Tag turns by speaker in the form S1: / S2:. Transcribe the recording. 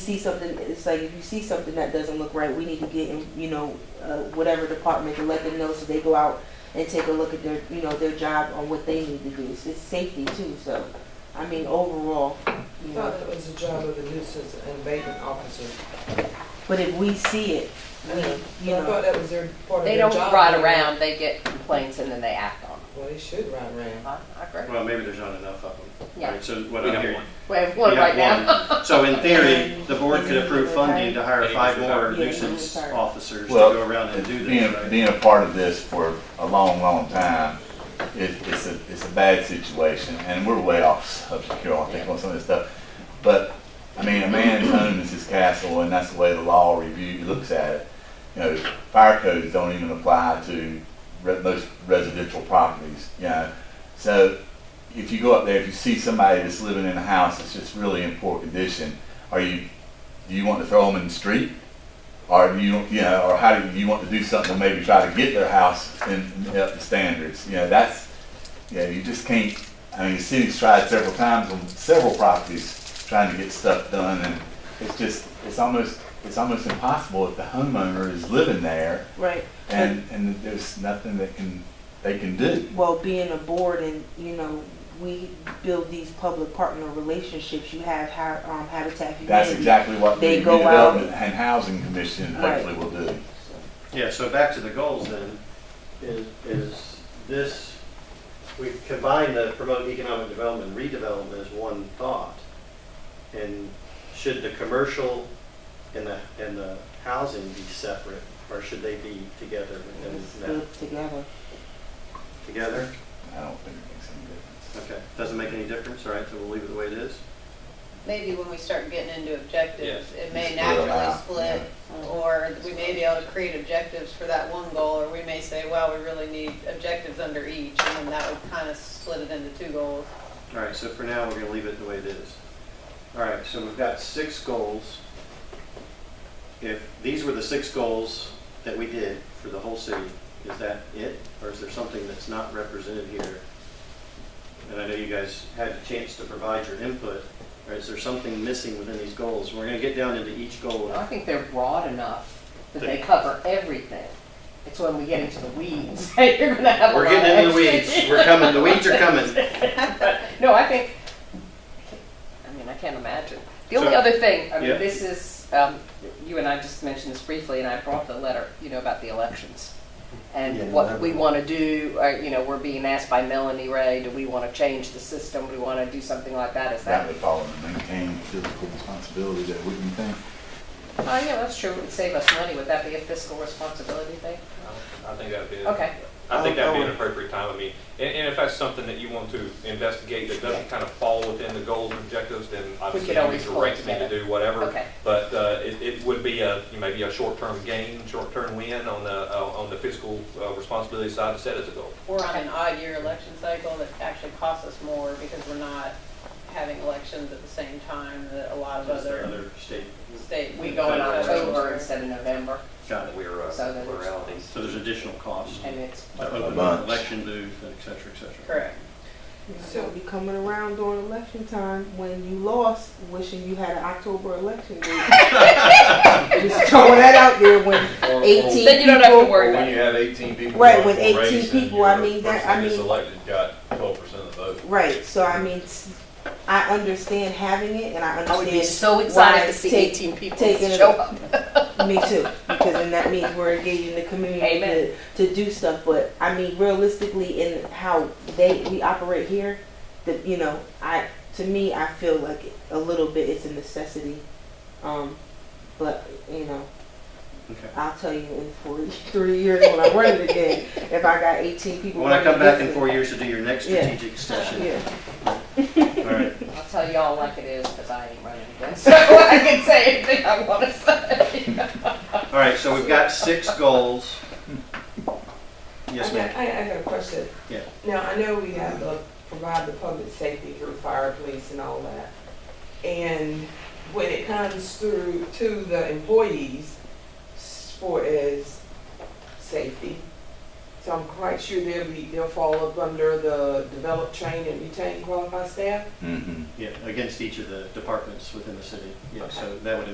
S1: see something, it's like if you see something that doesn't look right, we need to get in, you know, uh, whatever department to let them know so they go out and take a look at their, you know, their job on what they need to do. It's, it's safety too, so, I mean, overall, you know.
S2: thought it was the job of the nuisance and abatement officer.
S1: But if we see it,
S2: I know,
S1: we, you
S2: but I
S1: know,
S2: thought that was their part of
S3: They
S2: their job.
S3: don't ride around, they get complaints and then they act on
S2: Well, they should ride around.
S3: them. I agree.
S4: Well, maybe there's not enough of them.
S3: Yeah.
S4: Right, So what
S5: We
S4: I'm
S5: have
S4: hearing.
S5: one.
S3: We have one right now.
S4: one. So in theory, the board could approve funding to hire five more
S1: Yeah,
S4: nuisance
S1: retired.
S4: officers to
S6: Well,
S4: go around and do
S6: being,
S4: this, right?
S6: being a part of this for a long, long time, it, it's a, it's a bad situation, and we're way off subject here, I think, on some of this stuff. But, I mean, a man's home is his castle, and that's the way the law review, looks at it. You know, fire codes don't even apply to re- most residential properties, you know? So, if you go up there, if you see somebody that's living in a house that's just really in poor condition, are you, do you want to throw them in the street? Or you, you know, or how do you want to do something to maybe try to get their house in, up to standards? You know, that's, you know, you just can't, I mean, the city's tried several times on several properties trying to get stuff done and it's just, it's almost, it's almost impossible if the homeowner is living there
S1: right,
S6: and, and there's nothing that can, they can do.
S1: well, being a board and, you know, we build these public partner relationships, you have ha- um, Habitat for
S6: That's
S1: Humanity.
S6: exactly what the
S1: They go out-
S6: redevelopment and housing commission
S1: Right.
S6: hopefully will do.
S1: So,
S4: Yeah, so back to the goals then, is, is this, we combine the promote economic development, and redevelopment as one thought. And should the commercial and the, and the housing be separate, or should they be together
S1: Let's
S4: within that,
S1: live together.
S4: together?
S6: I don't think it makes any difference.
S4: Okay, doesn't make any difference, all right, so we'll leave it the way it is?
S7: maybe when we start getting into objectives, it may
S6: Split it
S7: naturally
S6: out,
S7: split, or we may be able to create objectives for that one goal, or we may say, well, we really need objectives under each, and then that would kind of split it into two goals.
S4: All right, so for now, we're gonna leave it the way it is. All right, so we've got six goals. If these were the six goals that we did for the whole city, is that it? Or is there something that's not represented here? And I know you guys had a chance to provide your input, or is there something missing within these goals? We're gonna get down into each goal.
S3: I think they're broad enough that they cover everything. It's when we get into the weeds that you're gonna have a lot
S4: We're
S3: of.
S4: getting into the
S3: extra-
S4: weeds, we're coming, the weeds are coming.
S3: No, I think, I mean, I can't imagine. The only
S4: So-
S3: other thing, I mean,
S4: Yeah.
S3: this is, um, you and I just mentioned this briefly, and I brought the letter, you know, about the elections.
S4: Yeah,
S3: And what
S4: that-
S3: we want to do, or, you know, we're being asked by Melanie Ray, do we want to change the system? Do we want to do something like that? Is
S6: That
S3: that?
S6: would follow and maintain physical responsibility that wouldn't you think?
S3: Oh, yeah, that's true. It would save us money. Would that be a fiscal responsibility thing?
S5: I think that'd be,
S3: Okay.
S5: I think that'd be an appropriate time, I mean, and, and if that's something that you want to investigate that doesn't kind of fall within the goals and objectives, then obviously you
S3: always
S5: need to
S3: pull it
S5: direct me to
S3: together.
S5: do whatever.
S3: Okay.
S5: But, uh, it, it would be a, you know, maybe a short-term gain, short-term win on the, uh, on the fiscal uh, responsibility side to set as a goal.
S7: Or on an odd year election cycle that actually costs us more because we're not having elections at the same time that a lot of
S4: Is there
S7: other
S4: other state?
S7: state, we
S3: We go
S7: go
S3: in
S7: into
S3: October
S7: elections.
S3: instead of November,
S4: Got it.
S5: We're, uh,
S3: So that it's-
S5: pluralities.
S4: So there's additional costs,
S3: and it's,
S6: A bunch.
S4: election dues, et cetera, et cetera.
S7: Correct.
S1: So be coming around during election time when you lost, wishing you had an October election date. Just throwing that out there when
S3: Oh.
S8: Or-
S1: eighteen
S3: Then you don't have to
S1: people.
S3: worry.
S8: Or when you have eighteen people.
S1: Right,
S8: running
S1: with
S8: for
S1: 18
S8: race and
S1: people, I
S8: your
S1: mean, that-
S8: person
S1: I
S8: gets
S1: mean-
S8: elected got twelve percent of the vote.
S1: Right, so I mean, s- I understand having it and I
S3: I would be
S1: understand
S3: so excited
S1: why
S3: to see
S1: take-
S3: eighteen people
S1: taking it
S3: show
S1: up.
S3: up.
S1: me too, because then that means we're engaging the community
S3: Amen.
S1: to, to do stuff. But I mean, realistically, in how they we operate here, the you know, I to me, I feel like a little bit it's a necessity. Um, but you know,
S4: Okay.
S1: I'll tell you in forty three years when I run it again, if I got eighteen people.
S4: When I come
S1: running
S4: back in
S1: against
S4: four years to do your next
S1: Yeah.
S4: strategic session.
S1: me. Yeah,
S4: All right.
S3: I'll tell y'all like it is, because I ain't running again, so I can say anything I want to say.
S4: All right, so we've got six goals. Yes,
S2: I got-
S4: ma'am.
S2: I, I got a question.
S4: Yeah.
S2: Now, I know we have to provide the public safety through fire, police and all that. And when it comes through to the employees as far as safety, so I'm quite sure they'll be, they'll fall up under the develop, train and retain qualified staff?
S6: Mm-hmm.
S4: Yeah, against each of the departments within the city. Yeah, so that would